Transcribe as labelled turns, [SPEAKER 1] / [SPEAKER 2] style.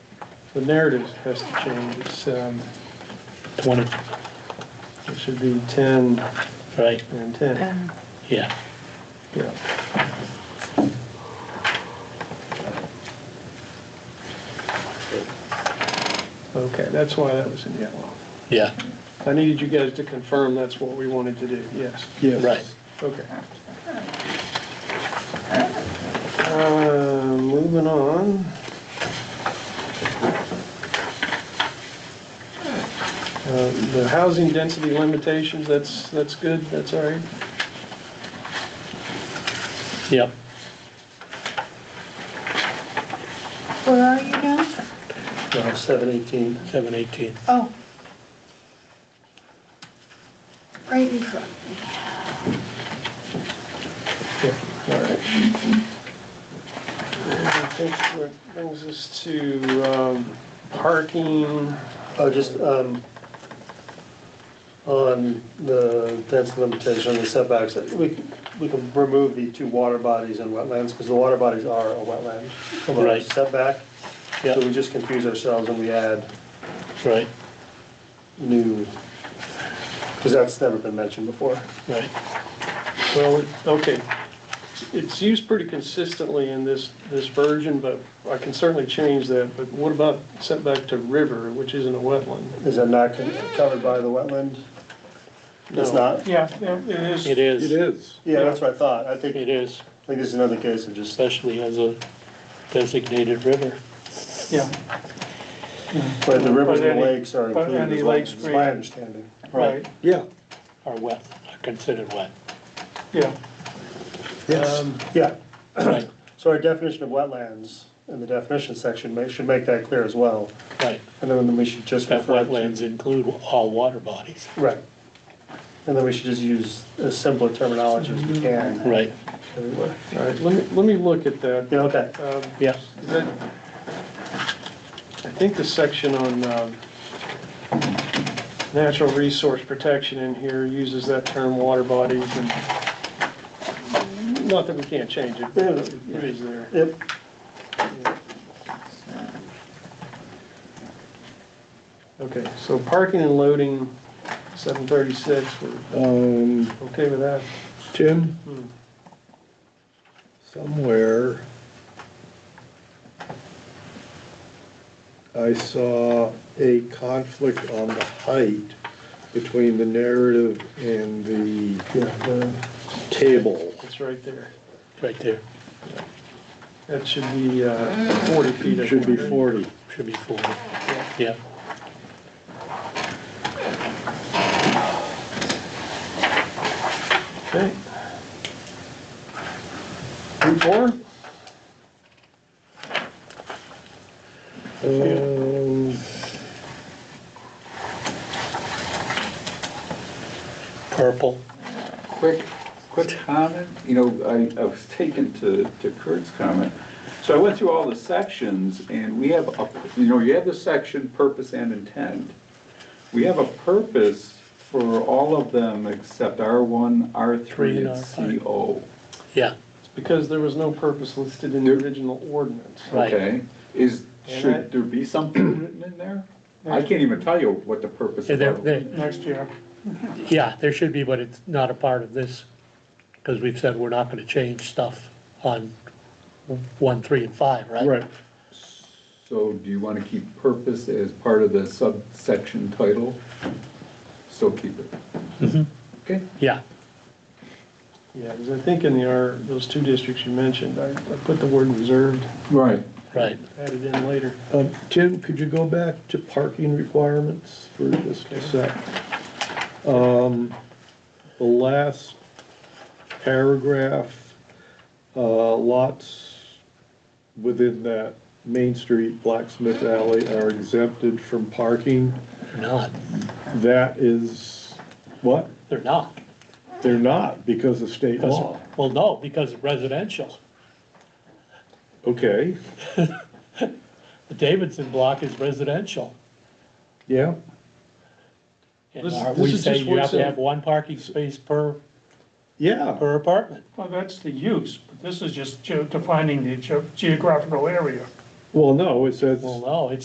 [SPEAKER 1] The narrative has to change, it's, um,
[SPEAKER 2] 20,
[SPEAKER 1] it should be ten
[SPEAKER 2] right,
[SPEAKER 1] and ten,
[SPEAKER 2] yeah.
[SPEAKER 1] yeah. Okay, that's why that was in yellow.
[SPEAKER 2] Yeah,
[SPEAKER 1] I needed you guys to confirm that's what we wanted to do, yes. Yes.
[SPEAKER 2] Right.
[SPEAKER 1] Okay. Uh, Moving on. Uh, The housing density limitations, that's, that's good, that's all right.
[SPEAKER 2] yep.
[SPEAKER 3] Where are you now?
[SPEAKER 1] Seven eighteen.
[SPEAKER 2] 718.
[SPEAKER 3] Oh. Right in front.
[SPEAKER 1] Yeah, all right. And I think what brings us to um, parking.
[SPEAKER 4] Oh, just, um, on the density limitation, the setbacks, we, we can remove the two water bodies and wetlands, because the water bodies are a wetland. from our
[SPEAKER 2] Right.
[SPEAKER 4] Setback, so
[SPEAKER 2] Yep,
[SPEAKER 4] we just confuse ourselves and we add
[SPEAKER 2] right,
[SPEAKER 4] new, because that's never been mentioned before.
[SPEAKER 2] right,
[SPEAKER 1] Well, okay, it's used pretty consistently in this, this version, but I can certainly change that, but what about setback to river, which isn't a wetland?
[SPEAKER 4] Is that not con- covered by the wetland? It's
[SPEAKER 1] No.
[SPEAKER 4] not?
[SPEAKER 1] Yeah, it is.
[SPEAKER 2] it is,
[SPEAKER 5] is.
[SPEAKER 4] Yeah, that's what I thought. I think, I
[SPEAKER 2] it is,
[SPEAKER 4] think this is another case of just,
[SPEAKER 2] especially as a designated river.
[SPEAKER 1] Yeah,
[SPEAKER 4] but the rivers
[SPEAKER 1] But
[SPEAKER 4] and
[SPEAKER 1] any-
[SPEAKER 4] lakes are
[SPEAKER 1] but
[SPEAKER 4] included
[SPEAKER 1] any
[SPEAKER 4] as
[SPEAKER 1] lakes
[SPEAKER 4] wetlands, is
[SPEAKER 1] create-
[SPEAKER 4] my understanding.
[SPEAKER 1] right,
[SPEAKER 5] Yeah,
[SPEAKER 2] Are wet, are considered wet,
[SPEAKER 1] yeah.
[SPEAKER 5] yes.
[SPEAKER 4] Yeah.
[SPEAKER 2] right,
[SPEAKER 4] So our definition of wetlands in the definition section ma- should make that clear as well,
[SPEAKER 2] right.
[SPEAKER 4] and then we should just
[SPEAKER 2] That
[SPEAKER 4] refer to.
[SPEAKER 2] wetlands include all water bodies,
[SPEAKER 4] Right. And then we should just use as simple a terminology as we can
[SPEAKER 2] right,
[SPEAKER 4] everywhere.
[SPEAKER 1] All right, let me, let me look at that.
[SPEAKER 4] Yeah, okay.
[SPEAKER 1] Um,
[SPEAKER 2] yeah,
[SPEAKER 1] Is that- I think the section on um, natural resource protection in here uses that term water bodies and, not that we can't change it, but it is there.
[SPEAKER 4] Yep,
[SPEAKER 1] Okay, so parking and loading, 736, we're
[SPEAKER 5] Um,
[SPEAKER 1] okay with that?
[SPEAKER 5] Tim,
[SPEAKER 1] Hmm.
[SPEAKER 5] somewhere I saw a conflict on the height between the narrative and the
[SPEAKER 4] yeah, the-
[SPEAKER 5] table.
[SPEAKER 1] It's right there.
[SPEAKER 2] right there,
[SPEAKER 1] That should be uh, 40 feet. I
[SPEAKER 5] It should be
[SPEAKER 1] think.
[SPEAKER 5] forty.
[SPEAKER 2] should be forty, yeah.
[SPEAKER 1] Okay. Group four?
[SPEAKER 5] Um,
[SPEAKER 2] Purple,
[SPEAKER 6] Quick, quick comment, you know, I, I was taken to, to Kurt's comment. So I went through all the sections and we have, a you know, you have the section purpose and intent. We have a purpose for all of them except R1,
[SPEAKER 2] Three and
[SPEAKER 6] R3,
[SPEAKER 2] R5.
[SPEAKER 6] and CO.
[SPEAKER 2] yeah,
[SPEAKER 1] It's because there was no purpose listed in the original ordinance.
[SPEAKER 2] Right.
[SPEAKER 6] Okay, is,
[SPEAKER 1] And I-
[SPEAKER 6] should there be something written in there? I can't even tell you what the purpose
[SPEAKER 2] Yeah,
[SPEAKER 6] of
[SPEAKER 2] there,
[SPEAKER 6] that
[SPEAKER 2] there,
[SPEAKER 1] Next year.
[SPEAKER 2] Yeah, there should be, but it's not a part of this, because we've said we're not gonna change stuff on one, three, and five, right?
[SPEAKER 5] Right,
[SPEAKER 6] So do you want to keep purpose as part of the subsection title? Still keep it? Okay.
[SPEAKER 2] Yeah,
[SPEAKER 1] Yeah, because I think in the R, those two districts you mentioned, I I put the word reserved,
[SPEAKER 6] Right.
[SPEAKER 2] right,
[SPEAKER 1] added in later.
[SPEAKER 5] um, Tim, could you go back to parking requirements for just a sec? Um, the last paragraph, uh, lots within that Main Street, Blacksmith Alley are exempted from parking.
[SPEAKER 2] not,
[SPEAKER 5] That is, what?
[SPEAKER 2] they're not.
[SPEAKER 5] They're not because of state
[SPEAKER 2] 'Cause-
[SPEAKER 5] law.
[SPEAKER 2] Well, no, because residential,
[SPEAKER 5] Okay,
[SPEAKER 2] the Davidson block is residential.
[SPEAKER 5] yeah,
[SPEAKER 2] And
[SPEAKER 1] This-
[SPEAKER 2] are
[SPEAKER 1] this
[SPEAKER 2] we
[SPEAKER 1] is
[SPEAKER 2] say
[SPEAKER 1] just
[SPEAKER 2] you have
[SPEAKER 1] what's in-
[SPEAKER 2] to have one parking space per,
[SPEAKER 5] yeah.
[SPEAKER 2] per apartment,
[SPEAKER 7] Well, that's the use, but this is just ge- defining the ge- geographical area.
[SPEAKER 5] Well, no, it says.
[SPEAKER 2] well, no, it's